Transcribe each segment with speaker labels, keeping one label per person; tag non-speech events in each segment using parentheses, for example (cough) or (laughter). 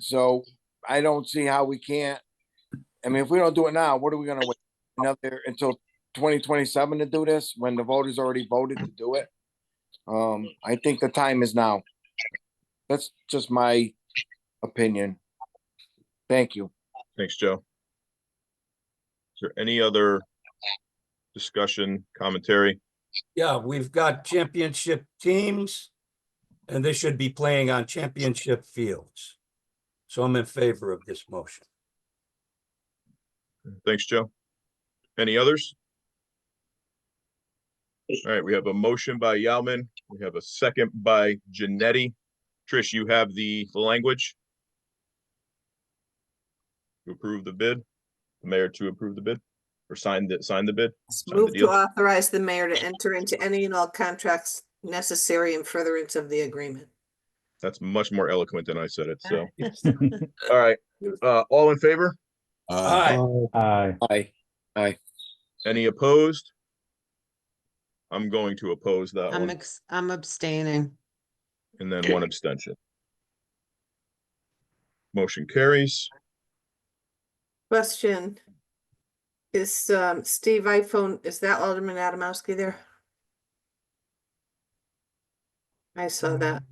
Speaker 1: So I don't see how we can't, I mean, if we don't do it now, what are we gonna wait another, until twenty twenty-seven to do this, when the voters already voted to do it? Um, I think the time is now. That's just my opinion. Thank you.
Speaker 2: Thanks, Joe. Is there any other discussion, commentary?
Speaker 3: Yeah, we've got championship teams, and they should be playing on championship fields. So I'm in favor of this motion.
Speaker 2: Thanks, Joe. Any others? All right, we have a motion by Yalman. We have a second by Janetti. Trish, you have the the language? To approve the bid, the mayor to approve the bid or sign the, sign the bid? Sign the
Speaker 4: Move to
Speaker 2: deal.
Speaker 4: authorize the mayor to enter into any and all contracts necessary in furtherance of the agreement.
Speaker 2: That's much more eloquent than I said it, so. All right, uh, all in favor?
Speaker 1: Uh,
Speaker 3: Aye.
Speaker 5: uh, Aye.
Speaker 1: Aye.
Speaker 2: Any opposed? I'm going to oppose that
Speaker 6: I'm,
Speaker 2: one
Speaker 6: ex- I'm abstaining.
Speaker 2: and then one abstention. Motion carries.
Speaker 4: Question. Is um Steve iPhone, is that Alderman Adamowski there? I saw
Speaker 7: Um,
Speaker 4: that.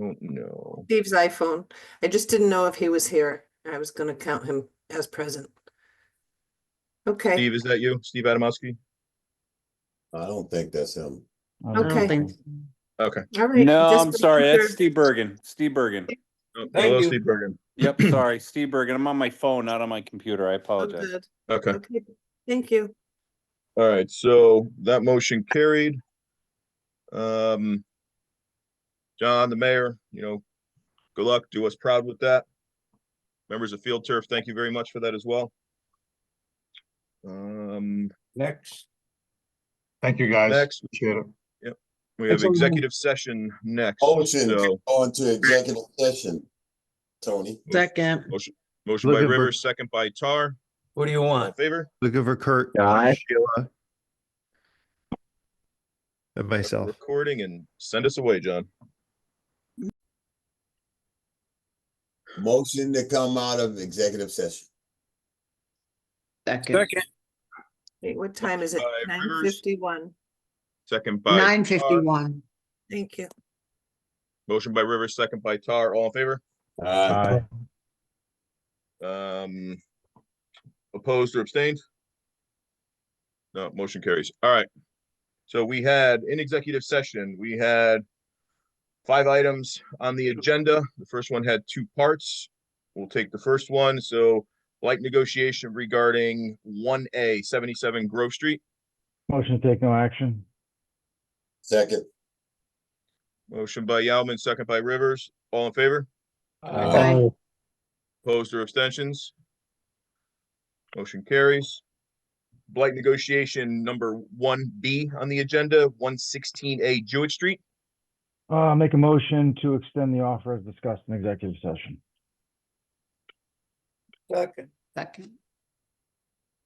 Speaker 2: Oh, no.
Speaker 4: Steve's iPhone. I just didn't know if he was here. I was gonna count him as present. Okay,
Speaker 2: Steve, is that you? Steve Adamowski?
Speaker 8: I don't think that's him.
Speaker 5: I
Speaker 6: I
Speaker 5: don't
Speaker 4: Okay.
Speaker 6: don't think,
Speaker 2: Okay.
Speaker 4: all right.
Speaker 7: No,
Speaker 4: just
Speaker 7: I'm sorry.
Speaker 4: making
Speaker 7: That's
Speaker 4: sure.
Speaker 7: Steve Bergen. Steve Bergen.
Speaker 2: Oh,
Speaker 3: Thank
Speaker 2: Hello,
Speaker 3: you.
Speaker 2: Steve Bergen.
Speaker 7: Yep,
Speaker 4: (laughs)
Speaker 7: sorry, Steve Bergen. I'm on my phone, not on my computer. I
Speaker 4: Oh,
Speaker 7: apologize.
Speaker 4: good.
Speaker 2: Okay,
Speaker 4: Okay, thank you.
Speaker 2: all right, so that motion carried. Um, John, the mayor, you know, good luck. Do us proud with that. Members of Field Turf, thank you very much for that as well. Um,
Speaker 3: Next,
Speaker 9: Thank you, guys.
Speaker 2: Next.
Speaker 9: Appreciate it.
Speaker 2: we have
Speaker 9: That's all I have.
Speaker 2: executive session next.
Speaker 8: Motion
Speaker 2: so-
Speaker 8: to go into executive session. Tony,
Speaker 6: second,
Speaker 2: Motion by
Speaker 9: Looking for-
Speaker 2: Rivers, second by Tar.
Speaker 3: what do you
Speaker 2: All in
Speaker 3: want?
Speaker 2: favor?
Speaker 9: Looking for Kurt.
Speaker 5: Aye.
Speaker 9: Sheila. And myself.
Speaker 2: Recording and send us away, John.
Speaker 8: motion to come out of executive session.
Speaker 6: second,
Speaker 4: Wait, what time is it?
Speaker 2: Five
Speaker 4: Nine
Speaker 2: Rivers.
Speaker 4: fifty-one.
Speaker 2: Second by.
Speaker 6: nine
Speaker 2: Tar.
Speaker 6: fifty-one.
Speaker 4: Thank you.
Speaker 2: Motion by Rivers, second by Tar. All in favor?
Speaker 8: Aye.
Speaker 2: Um, opposed or abstained? No, motion carries. All right. So we had in executive session, we had five items on the agenda. The first one had two parts. We'll take the first one. So like negotiation regarding one A seventy-seven Grove Street.
Speaker 5: Motion to take no action.
Speaker 8: Second.
Speaker 2: Motion by Yalman, second by Rivers. All in favor?
Speaker 3: Uh,
Speaker 8: Aye.
Speaker 2: Opposed or abstentions? Motion carries. Blight negotiation number one B on the agenda, one sixteen A Jewett Street.
Speaker 5: Uh, make a motion to extend the offer as discussed in executive session.
Speaker 3: Second.
Speaker 6: Second,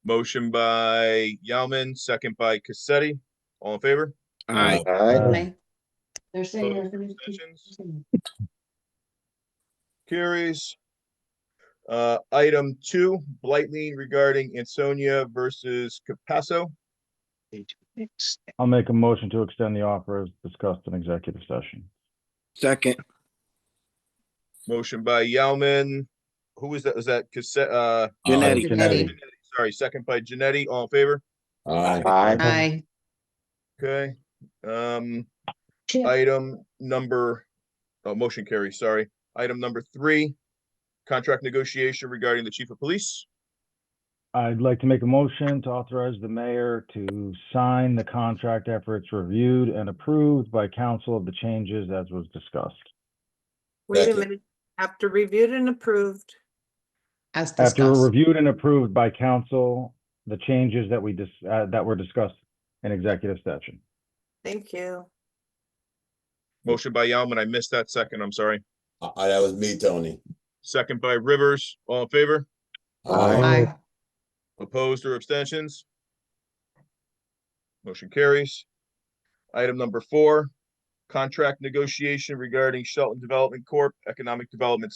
Speaker 2: Motion by Yalman, second by Cassetti. All in favor?
Speaker 1: Aye.
Speaker 6: aye. They're saying.
Speaker 2: Opposed or abstentions? Carries. Uh, item two, blight lien regarding Ansonia versus Capasso.
Speaker 5: I'll make a motion to extend the offer as discussed in executive session.
Speaker 1: Second,
Speaker 2: Motion by Yalman. Who was that? Was that Cassette, uh,
Speaker 1: Janetti,
Speaker 6: Janetti.
Speaker 2: sorry, second by Janetti. All in favor?
Speaker 8: Aye.
Speaker 6: Aye,
Speaker 2: Okay, um, item number, oh, motion carry, sorry. Item number three, contract negotiation regarding the chief of police.
Speaker 5: I'd like to make a motion to authorize the mayor to sign the contract after it's reviewed and approved by council of the changes as was discussed.
Speaker 4: Wait a
Speaker 8: Second.
Speaker 4: minute. After reviewed and approved.
Speaker 6: as
Speaker 5: After
Speaker 6: discussed.
Speaker 5: reviewed and approved by council, the changes that we dis- uh, that were discussed in executive session.
Speaker 4: Thank you.
Speaker 2: Motion by Yalman, I missed that second, I'm sorry.
Speaker 8: Aye, that was me, Tony.
Speaker 2: Second by Rivers, all in favor?
Speaker 6: Aye,
Speaker 2: Opposed or abstentions? Motion carries. Item number four, contract negotiation regarding Shelton Development Corp. Economic Development